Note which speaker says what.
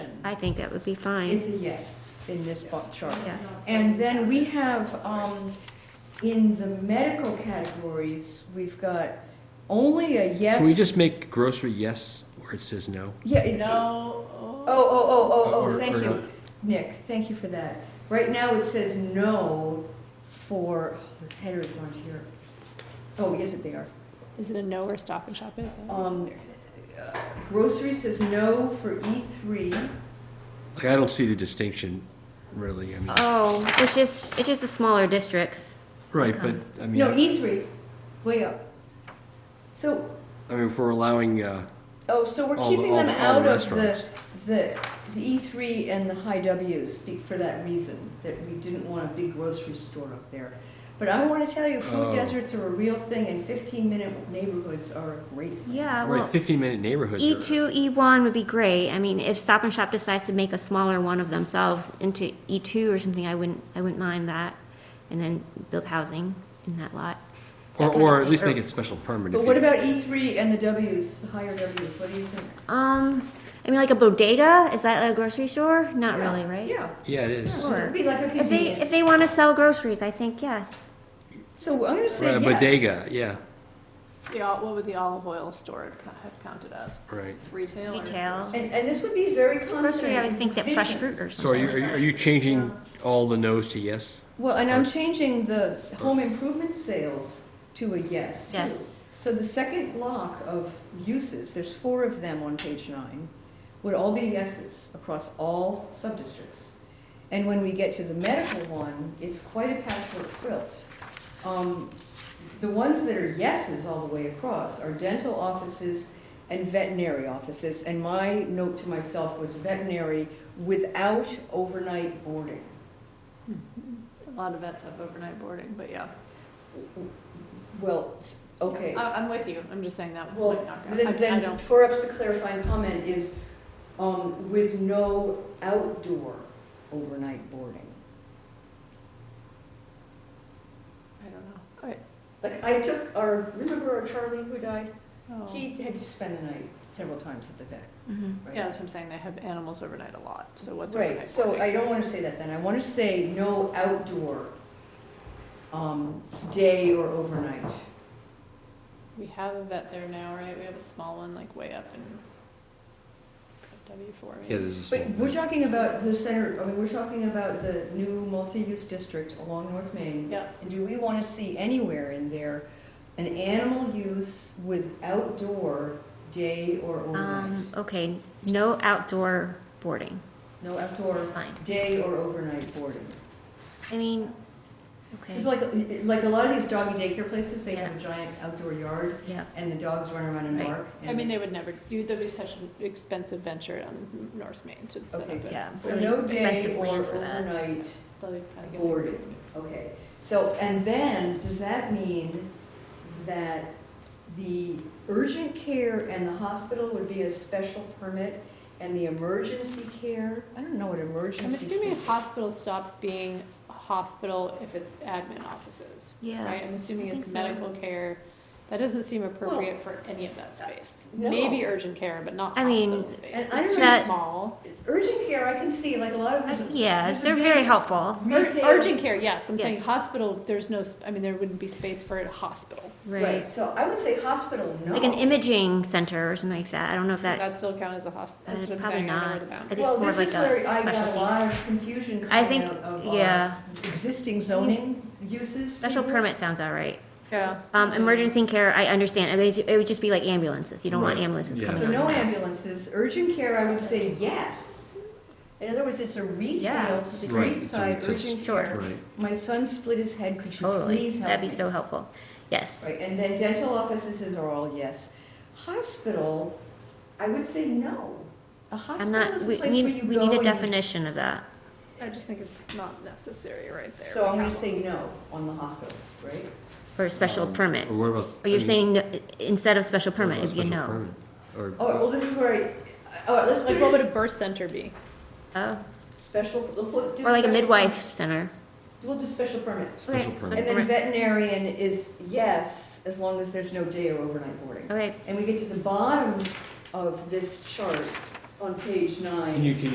Speaker 1: I think that would be fine.
Speaker 2: It's a yes in this bar chart.
Speaker 1: Yes.
Speaker 2: And then we have, um, in the medical categories, we've got only a yes.
Speaker 3: Can we just make grocery yes where it says no?
Speaker 2: Yeah, it-
Speaker 4: No.
Speaker 2: Oh, oh, oh, oh,
Speaker 3: Or-
Speaker 2: oh, thank
Speaker 3: or
Speaker 2: you,
Speaker 3: Uh, not?
Speaker 2: Nick, thank you for that. Right now, it says no for, oh, the headers aren't here. Oh, yes, they are.
Speaker 4: Is it a no where Stop and Shop is?
Speaker 2: Um, uh, Grocery says no for E E3.
Speaker 3: Like, I don't see the distinction, really, I mean,
Speaker 2: Uh,
Speaker 1: Oh, it's just, it's just the smaller districts.
Speaker 3: right, but, I mean,
Speaker 2: No, e-
Speaker 3: I
Speaker 2: E3, way up. So,
Speaker 3: I mean, if we're allowing, uh,
Speaker 2: oh, so we're
Speaker 3: All the-
Speaker 2: keeping
Speaker 3: all
Speaker 2: them
Speaker 3: the- all
Speaker 2: out
Speaker 3: the
Speaker 2: of the,
Speaker 3: restaurants.
Speaker 2: the, the E3 and the high Ws be- for that reason, that we didn't want a big grocery store up there. But I want to tell you, food
Speaker 3: Oh.
Speaker 2: deserts are a real thing and 15-minute neighborhoods are a great thing.
Speaker 1: Yeah,
Speaker 3: right,
Speaker 1: well, E
Speaker 3: fifteen-minute neighborhoods.
Speaker 2: E
Speaker 3: are-
Speaker 1: E2, E1 would be great. I mean, if Stop and Shop decides to make a smaller one of themselves into E2 or something, I wouldn't, I wouldn't mind that. And then build housing in that lot.
Speaker 3: Or,
Speaker 1: That kind of
Speaker 3: or at
Speaker 1: thing,
Speaker 3: least
Speaker 1: or-
Speaker 3: make it special permit.
Speaker 2: But
Speaker 3: if
Speaker 2: what
Speaker 3: you-
Speaker 2: about E3 and the Ws, the higher Ws, what do you think?
Speaker 1: Um, I mean, like a bodega, is that a grocery store? Not
Speaker 2: Yeah,
Speaker 1: really, right?
Speaker 2: Yeah,
Speaker 3: Yeah, it is.
Speaker 2: yeah, it'd be like a
Speaker 1: If they, if
Speaker 2: convenience.
Speaker 1: they want to sell groceries, I think yes.
Speaker 2: So I'm going to say
Speaker 3: Right, a
Speaker 2: yes.
Speaker 3: Bodega, yeah,
Speaker 4: The, ol- what would the olive oil store co- have counted as?
Speaker 3: right.
Speaker 4: Retail? or-
Speaker 1: Retail.
Speaker 2: And, and this would be very consonant.
Speaker 1: Grocery, I would
Speaker 2: with
Speaker 1: think that
Speaker 2: the
Speaker 1: fresh
Speaker 2: vision.
Speaker 1: fruit or
Speaker 3: So are you,
Speaker 1: something.
Speaker 3: are you- are you changing all the no's to yes?
Speaker 2: Well, and I'm changing the home improvement sales to a yes, too.
Speaker 1: Yes.
Speaker 2: So the second block of uses, there's four of them on page nine, would all be yeses across all subdistricts. And when we get to the medical one, it's quite a patchwork quilt. Um, The ones that are yeses all the way across are dental offices and veterinary offices. And my note to myself was veterinary without overnight boarding.
Speaker 4: A lot of vets have overnight boarding, but yeah.
Speaker 2: Well, s- okay.
Speaker 4: I, I'm with you. I'm just saying that.
Speaker 2: Well,
Speaker 4: might not go. I-
Speaker 2: then,
Speaker 4: I
Speaker 2: then
Speaker 4: don't-
Speaker 2: perhaps the clarifying comment is, um, with no outdoor overnight boarding.
Speaker 4: I don't know. I-
Speaker 2: Like, I took our, remember our Charlie who died?
Speaker 4: oh.
Speaker 2: He had to spend the night several times at the vet,
Speaker 1: Mhm.
Speaker 2: right?
Speaker 4: Yeah, that's what I'm saying. They have animals overnight a lot, so what's
Speaker 2: Right,
Speaker 4: overnight
Speaker 2: so
Speaker 4: boarding?
Speaker 2: I don't wanna say that then, I wanna say no outdoor, um, day or overnight.
Speaker 4: We have a vet there now, right? We have a small one like way up in W four.
Speaker 3: Yeah, this is.
Speaker 2: But we're talking about the center, I mean, we're talking about the new multi-use district along North Main.
Speaker 4: Yeah,
Speaker 2: And do we want to see anywhere in there an animal use with outdoor day or overnight?
Speaker 1: Um, okay, no outdoor boarding,
Speaker 2: No outdoor
Speaker 1: fine.
Speaker 2: day or overnight boarding.
Speaker 1: I mean, okay,
Speaker 2: It's like, like a lot of these doggy daycare places, they have a giant outdoor yard
Speaker 1: yeah.
Speaker 2: and the dogs run around and
Speaker 1: Right.
Speaker 2: bark.
Speaker 4: I mean, they would never, do. that'd be such an expensive venture on North Main to set up
Speaker 2: Okay,
Speaker 4: a.
Speaker 1: yeah.
Speaker 2: So
Speaker 1: really
Speaker 2: no day
Speaker 1: expensive
Speaker 2: or
Speaker 1: land for that.
Speaker 2: overnight,
Speaker 4: Let me kinda get my
Speaker 2: Boarding.
Speaker 4: grades mixed.
Speaker 2: okay. So, and then, does that mean that the urgent care and the hospital would be a special permit, and the emergency care, I don't know what emergency.
Speaker 4: I'm assuming if hospital stops being a hospital if it's admin offices, right?
Speaker 1: Yeah,
Speaker 4: I'm assuming
Speaker 1: I
Speaker 4: it's
Speaker 1: think so.
Speaker 4: medical care. That doesn't seem appropriate for any of that space.
Speaker 2: no.
Speaker 4: Maybe urgent care, but not
Speaker 1: I mean,
Speaker 4: hospital space.
Speaker 2: and I
Speaker 4: It's
Speaker 2: don't
Speaker 4: too
Speaker 1: know-
Speaker 4: small.
Speaker 2: Urgent care, I can see, like, a lot of.
Speaker 1: I-
Speaker 2: these-
Speaker 1: Uh, yeah,
Speaker 2: these
Speaker 1: they're
Speaker 2: big
Speaker 1: very helpful,
Speaker 4: Ur-
Speaker 2: Retail.
Speaker 4: Urgent care, yes. I'm saying
Speaker 1: Yes.
Speaker 4: hospital, there's no, s- I mean, there wouldn't be space for a hospital.
Speaker 2: Right,
Speaker 1: right?
Speaker 2: so I would say hospital, no.
Speaker 1: Like an imaging center or something like that, I don't know if
Speaker 4: Does
Speaker 1: that,
Speaker 4: that still count as a hospital? That's
Speaker 1: Uh,
Speaker 4: what I'm
Speaker 1: probably
Speaker 4: saying. I don't know
Speaker 1: not.
Speaker 4: where the boundary
Speaker 1: I think
Speaker 2: Well,
Speaker 1: it's more
Speaker 2: this
Speaker 1: of
Speaker 2: is
Speaker 1: like a
Speaker 2: where I got a
Speaker 1: specialty.
Speaker 2: lot of confusion
Speaker 1: I
Speaker 2: coming
Speaker 1: think,
Speaker 2: out of our
Speaker 1: yeah, Mm-hmm.
Speaker 2: existing zoning uses.
Speaker 1: special
Speaker 2: here.
Speaker 1: permit sounds all right.
Speaker 4: Yeah.
Speaker 1: Um, emergency care, I understand, I mean, it would just be like ambulances, you don't want
Speaker 3: Right,
Speaker 1: ambulances
Speaker 3: yeah.
Speaker 1: coming
Speaker 2: So
Speaker 1: on.
Speaker 2: no ambulances, urgent care, I would say yes. In other words, it's a retail,
Speaker 1: Yeah.
Speaker 2: street side
Speaker 3: Right, it's-
Speaker 2: urgent
Speaker 1: Sure.
Speaker 2: care.
Speaker 3: Right,
Speaker 2: My son split his head, could you
Speaker 1: Totally,
Speaker 2: please help me?
Speaker 1: that'd be so helpful, yes.
Speaker 2: Right, and then dental offices are all yes. Hospital, I would say no. A
Speaker 1: I'm
Speaker 2: hospital
Speaker 1: not,
Speaker 2: is a
Speaker 1: we
Speaker 2: place where
Speaker 1: need,
Speaker 2: you
Speaker 1: we
Speaker 2: go
Speaker 1: need a
Speaker 2: and-
Speaker 1: definition of that.
Speaker 4: I just think it's not necessary right there.
Speaker 2: So
Speaker 4: We
Speaker 2: I'm gonna
Speaker 4: have
Speaker 2: say
Speaker 4: one.
Speaker 2: no on the hospitals, right?
Speaker 1: For a special
Speaker 3: Um,
Speaker 1: permit,
Speaker 3: or what about?
Speaker 1: or you're
Speaker 3: I mean,
Speaker 1: saying no- instead of special
Speaker 3: what
Speaker 1: permit,
Speaker 3: about
Speaker 1: if you
Speaker 3: special
Speaker 1: know.
Speaker 3: permit? Or.
Speaker 2: All right, Oh, well, this is where, I- all right, let's put
Speaker 4: Like, what would a
Speaker 2: it
Speaker 4: birth center be?
Speaker 1: Oh,
Speaker 2: as special. we'll do
Speaker 1: or like a
Speaker 2: special-
Speaker 1: midwife center.
Speaker 2: We'll do special permit.
Speaker 3: Special
Speaker 1: Okay,
Speaker 3: permit.
Speaker 2: And then veterinarian is yes, as long as there's no day or overnight boarding.
Speaker 1: Okay,
Speaker 2: And we get to the bottom of this chart on page nine.
Speaker 3: And you can